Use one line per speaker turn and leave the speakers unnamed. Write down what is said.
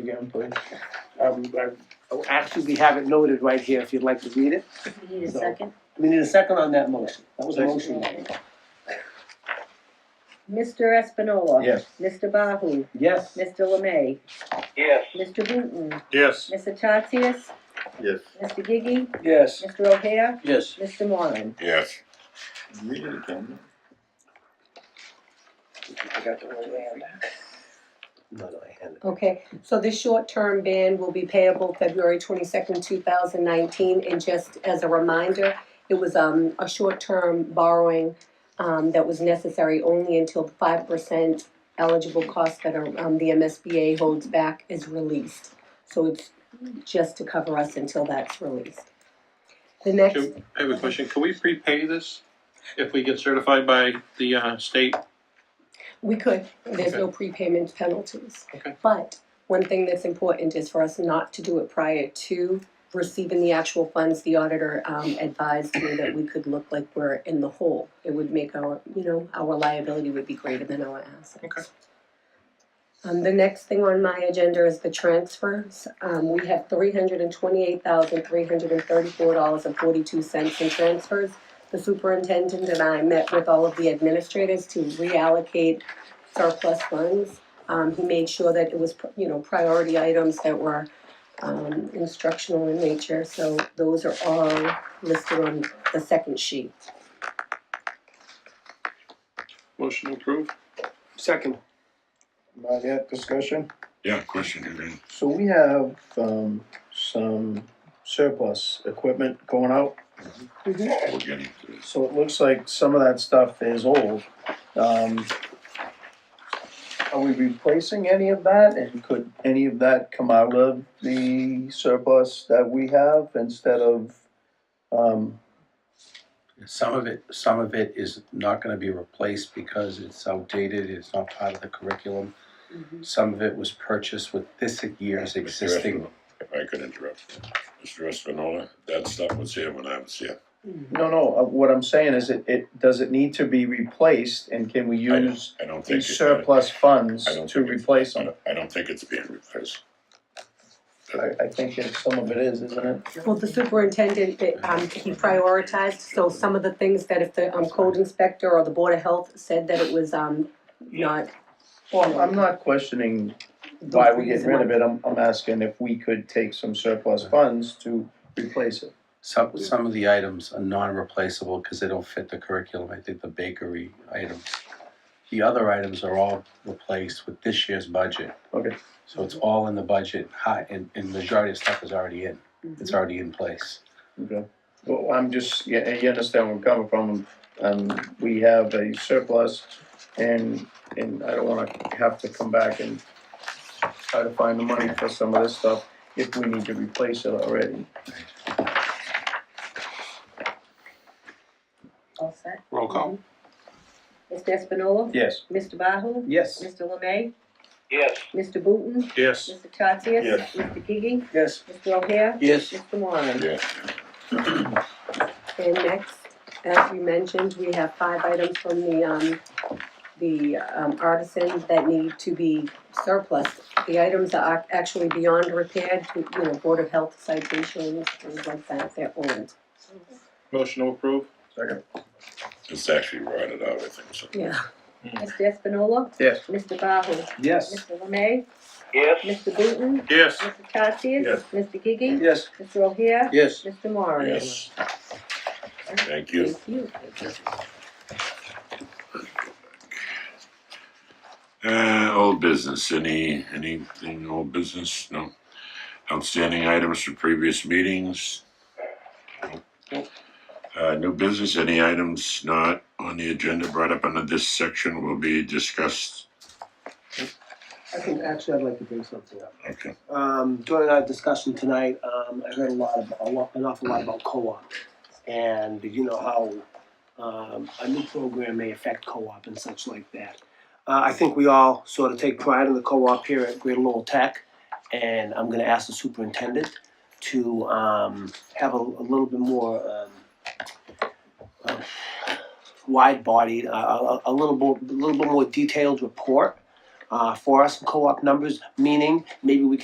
again, please. Um, I- oh, Actually, we have it noted right here if you'd like to read it.
You need a
So-
second?
We need a second on that motion. That was a motion.
Mr. Espinola.
Yes.
Mr. Bahu.
Yes,
Mr. Lemay.
Yes.
Mr. Booton.
Yes.
Mr. Tatsias.
Yes.
Mr. Gigi.
yes.
Mr. O'Hare.
Yes.
Mr. Moran.
Yes.
Read it again.
No, no, I had it.
Okay, so this short-term ban will be payable February twenty-second, two thousand nineteen, and just as a reminder, it was, um, a short-term borrowing, um, that was necessary only until five percent eligible cost that, are, um, the MSBA holds back is released. So it's just to cover us until that's released. The next,
Can, I have a question, can we prepay this if we get certified by the, uh, state?
we could, there's no prepayment penalties.
Okay.
But one thing that's important is for us not to do it prior to receiving the actual funds. The auditor um, advised me that we could look like we're in the hole. It would make our, you know, our liability would be greater than our assets.
Okay.
Um, the next thing on my agenda is the transfers. Um, we have three hundred and twenty-eight thousand, three hundred and thirty-four dollars and forty-two cents in transfers. The superintendent and I met with all of the administrators to reallocate surplus funds. Um, he made sure that it was, you know, priority items that were, um, instructional in nature, so those are all listed on the second sheet.
Motion approved?
Second,
Not yet, discussion?
Yeah, question, Adrian.
So we have, um, some surplus equipment going out.
Oh, We're getting to this.
So it looks like some of that stuff is old. Um, are we replacing any of that and could any of that come out of the surplus that we have instead of, um,
Some of it, some of it is not gonna be replaced because it's outdated, it's not part of the curriculum.
Mm-hmm.
Some of it was purchased with this year's
Mr.
existing,
Espinola, If I could interrupt, Mr. Espinola, that stuff was here when I was here.
no, no, uh, what I'm saying is it, it, does it need to be replaced and can we
don't-
use
I don't think.
these
it-
surplus funds
I don't
to
think it-
replace
I
them?
don't- I don't think it's being replaced.
I, I think that some of it is, isn't it?
Well, the superintendent, it, um, he prioritized, so some of the things that if the, um, code inspector or the board of health said that it was, um, not,
Well, I'm not questioning why we get rid of it, I'm, I'm asking if we could take some surplus funds to replace it.
some, some of the items are non-replaceable because they don't fit the curriculum, I think the bakery items. The other items are all replaced with this year's budget.
Okay.
So it's all in the budget, high, and, and majority of stuff is already in, it's already in place.
Okay. Well, I'm just, you, you understand where I'm coming from, um, we have a surplus and, and I don't wanna have to come back and try to find the money for some of this stuff if we need to replace it already.
All set.
Roll call?
Mr. Espinola.
Yes.
Mr. Bahu.
yes,
Mr. Lemay.
Yes.
Mr. Booton.
Yes.
Mr. Tatsias.
Yes.
Mr. Gigi.
yes.
Mr. O'Hare.
Yes.
Mr. Moran.
Yeah,
and next, as you mentioned, we have five items from the, um, the, um, artisans that need to be surplus. The items are ac- actually beyond repair, you know, board of health citations, things like that, they're old,
Motion approved?
Second.
it's actually rotted out, I think so.
yeah.
Mr. Espinola.
Yes.
Mr. Bahu.
Yes.
Mr. Lemay.
Yes.
Mr. Booton.
Yes.
Mr. Tatsias.
Yes.
Mr. Gigi.
Yes.
Mr. O'Hare.
Yes.
Mr. Moran.
Yes. Thank you. Uh, old business, any, anything old business? No. Outstanding items from previous meetings? No. Uh, new business, any items not on the agenda brought up under this section will be discussed?
I think, actually, I'd like to bring something up.
Okay.
Um, during our discussion tonight, um, I heard a lot about, a lot, an awful lot about co-op. And you know how, um, a new program may affect co-op and such like that. Uh, I think we all sort of take pride in the co-op here at Greater Lowell Tech. And I'm gonna ask the superintendent to, um, have a, a little bit more, um, uh, wide-bodied, uh, a, a little more, a little bit more detailed report uh, for us, co-op numbers, meaning maybe we can.